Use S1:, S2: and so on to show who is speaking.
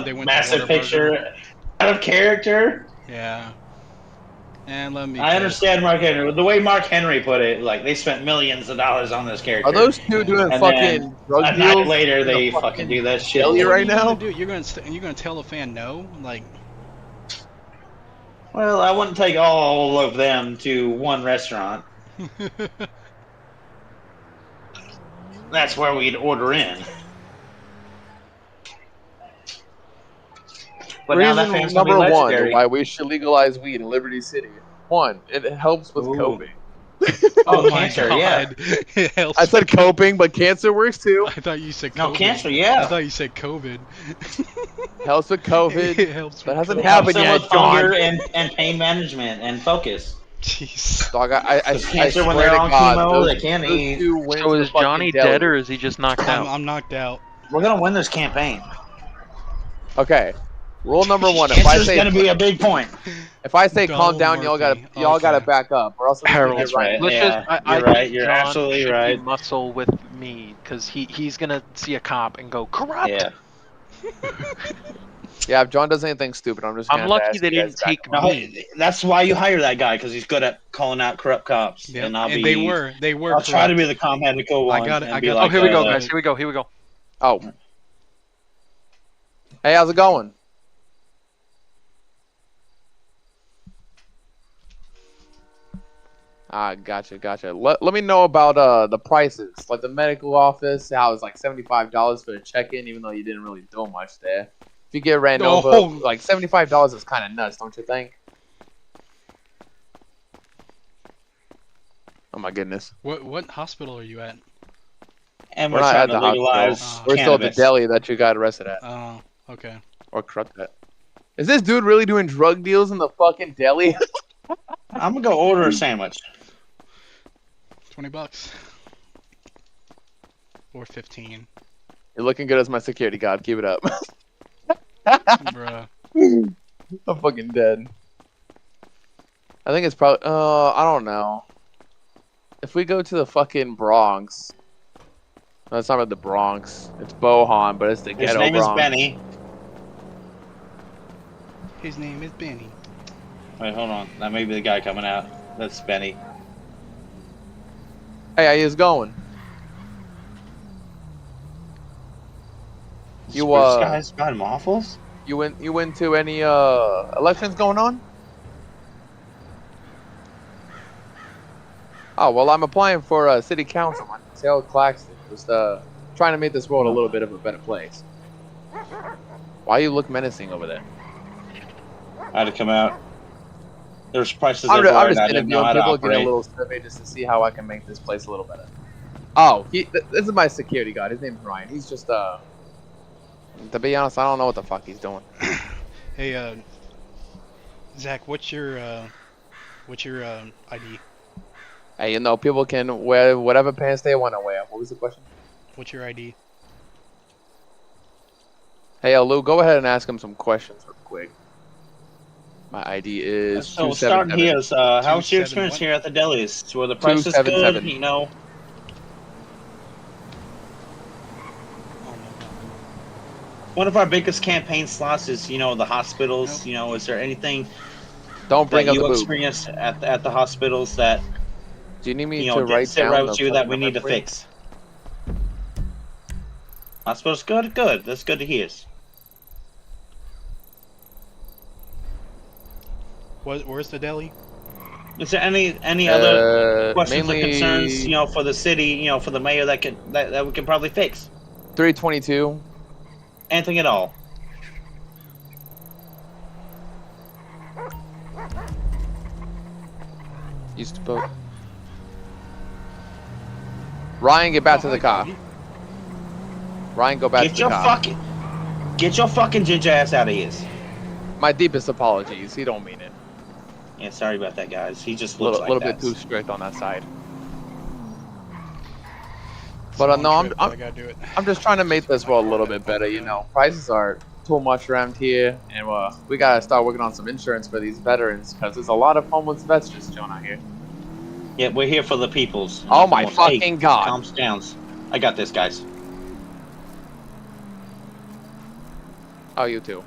S1: They
S2: a
S1: went to
S2: massive
S1: Whataburger.
S2: picture out of character.
S1: Yeah. And let me.
S2: I understand Mark Henry. The way Mark Henry put it, like they spent millions of dollars on this character.
S3: Are those two doing
S2: And
S3: fucking drug
S2: a night
S3: deals?
S2: later they
S3: Gonna
S2: fucking,
S3: fucking
S2: do that shit?
S3: kill you
S1: What are
S3: right
S1: gonna
S3: now?
S1: do? You're gonna st- you're gonna tell a fan no? Like,
S2: Well, I wouldn't take all of them to one restaurant. That's where we'd order in. But now that
S3: Reason
S2: fan's gonna be
S3: number one
S2: legendary.
S3: why we should legalize weed in Liberty City. One, it helps with
S2: Ooh.
S3: coping.
S2: Oh, cancer, yeah.
S1: yeah.
S3: I said coping, but cancer works too.
S1: I thought you said COVID.
S2: No, cancer,
S1: I
S2: yeah.
S1: thought you said COVID.
S3: Helps with COVID.
S1: it helps.
S3: That
S1: with
S3: hasn't
S1: COVID.
S2: Helps
S3: happened.
S2: them
S3: yet,
S2: with hunger
S3: John.
S2: and, and pain management and focus.
S1: Jeez.
S3: Dog, I, I, I, I
S2: With cancer
S3: swear
S2: when they're
S3: to
S2: on
S3: God,
S2: chemo,
S3: those,
S2: they can't
S3: those
S2: eat.
S3: two wins
S4: So
S3: the
S4: is
S3: fucking
S4: Johnny
S3: deli.
S4: dead or is he just knocked
S1: I'm,
S4: out?
S1: I'm knocked out.
S2: We're gonna win this campaign.
S3: Okay. Rule number one: if I
S2: Cancer's
S3: say
S2: gonna be a big point.
S3: if I say
S1: Donald
S3: calm down, y'all gotta
S1: Murphy.
S3: y'all gotta
S1: Okay.
S3: back up, or else I'm gonna get
S2: That's
S3: right.
S2: right.
S4: Let's
S2: yeah,
S4: just, I, I
S2: you're
S4: think
S2: right. You're
S4: John
S2: absolutely
S4: should be
S2: right.
S4: Muscle with me because he, he's gonna see a cop and go corrupt.
S2: Yeah.
S3: Yeah, if John does anything stupid, I'm just.
S4: I'm
S3: gonna
S4: lucky
S3: ask
S4: they
S3: you guys
S4: didn't
S3: back
S4: take
S3: up.
S2: No,
S4: me.
S2: that's why you hire that guy because he's good at calling out corrupt cops.
S1: Yeah,
S2: And I'll be.
S1: they were. They were.
S2: I'll try to
S1: corrupt.
S2: be the calm headed cool
S1: I
S2: one.
S1: got it,
S2: and
S1: I
S2: be
S1: got it.
S4: Oh,
S2: like,
S4: here we go,
S2: uh,
S4: guys. Here we go. Here we go.
S3: Oh. Hey, how's it going? Ah, gotcha, gotcha. Let, let me know about uh the prices, like the medical office. How it's like seventy five dollars for a check in, even though you didn't really do much there. If you get Randova,
S1: Oh.
S3: like seventy five dollars is kind of nuts, don't you think? Oh my goodness,
S1: What what hospital are you at?
S2: And
S3: We're
S2: we're,
S3: not
S2: trying
S3: at
S2: to
S3: the
S2: legalize.
S1: hospital.
S3: we're still at the
S2: cannabis.
S3: deli that you got arrested at,
S1: Oh, okay.
S3: or corrupt at. Is this dude really doing drug deals in the fucking deli?
S2: I'm gonna go order a sandwich.
S1: Twenty bucks. Or fifteen,
S3: You're looking good as my security guard. Keep it up.
S1: bruh.
S3: I'm fucking dead. I think it's probably. Uh, I don't know. If we go to the fucking Bronx, no, it's not about the Bronx. It's Bohan, but it's the
S2: His
S3: ghetto
S2: name
S3: Bronx.
S2: is Benny.
S1: His name is Benny.
S2: Wait, hold on. That may be the guy coming out. That's Benny.
S3: Hey, how yous going? You,
S2: Spruce
S3: uh,
S2: guys got waffles?
S3: You went? You went to any uh elections going on? Oh well, I'm applying for uh, city council. My name's Hal Claxton. Just uh trying to make this world a little bit of a better place. Why you look menacing over there?
S2: I had to come out. There's prices
S3: I'm, ju-
S2: everywhere.
S3: I'm
S2: and
S3: just
S2: I didn't know
S3: interviewing
S2: how to
S3: people, getting a
S2: operate.
S3: little survey just to see how I can make this place a little better. Oh, he, th- this is my security guard. His name's Ryan. He's just uh. To be honest, I don't know what the fuck he's doing.
S1: Hey, uh, Zach, what's your uh, what's your um, ID?
S3: Hey, you know, people can wear whatever pants they want to wear. What was the question?
S1: What's your ID?
S3: Hey, uh, Lou, go ahead and ask him some questions real quick. My ID is
S2: So
S3: two seven
S2: starting here
S3: seven.
S2: is uh, how's your experience
S1: 271?
S2: here at the delis? Were the prices good?
S3: 277.
S2: You know,
S1: Oh,
S2: one of our biggest campaign slots is you know the hospitals. You know, is there anything
S3: Don't bring
S2: that
S3: up the
S2: you
S3: boob.
S2: experienced at the, at the hospitals that
S3: Do you need me
S2: you know
S3: to
S2: didn't
S3: write
S2: sit
S3: down
S2: right
S3: the
S2: with you
S3: phone
S2: that we
S3: number
S2: need to
S3: for you?
S2: fix? Hospitals good, good. That's good to hear.
S1: no. Wh- where's the deli?
S2: Is there any any other
S3: Uh,
S2: questions
S3: mainly
S2: or concerns you know for the city? You know, for the mayor that could that, that we can probably fix
S3: three twenty-two.
S2: anything at all.
S3: Used to book. Ryan, get back to the car. Ryan, go back
S2: get
S3: to the
S2: your
S3: car.
S2: fucking get your fucking ginger ass out of here.
S3: My deepest apologies. He don't mean it.
S2: Yeah, sorry about that, guys. He just
S3: A
S2: looks
S3: little,
S2: like
S3: little
S2: that.
S3: bit too strict on that side. But, uh, no, I'm-
S1: Trip,
S3: I'm-
S1: I gotta do it.
S3: I'm just trying to make this world a little bit better, you know. Prices are too much around here, and uh, we gotta start working on some insurance for these veterans, because there's a lot of homeless vets just chilling out here.
S2: Yeah, we're here for the peoples.
S3: Oh my
S2: Hey,
S3: fucking god.
S2: Calm down. I got this, guys.
S3: Oh, you too.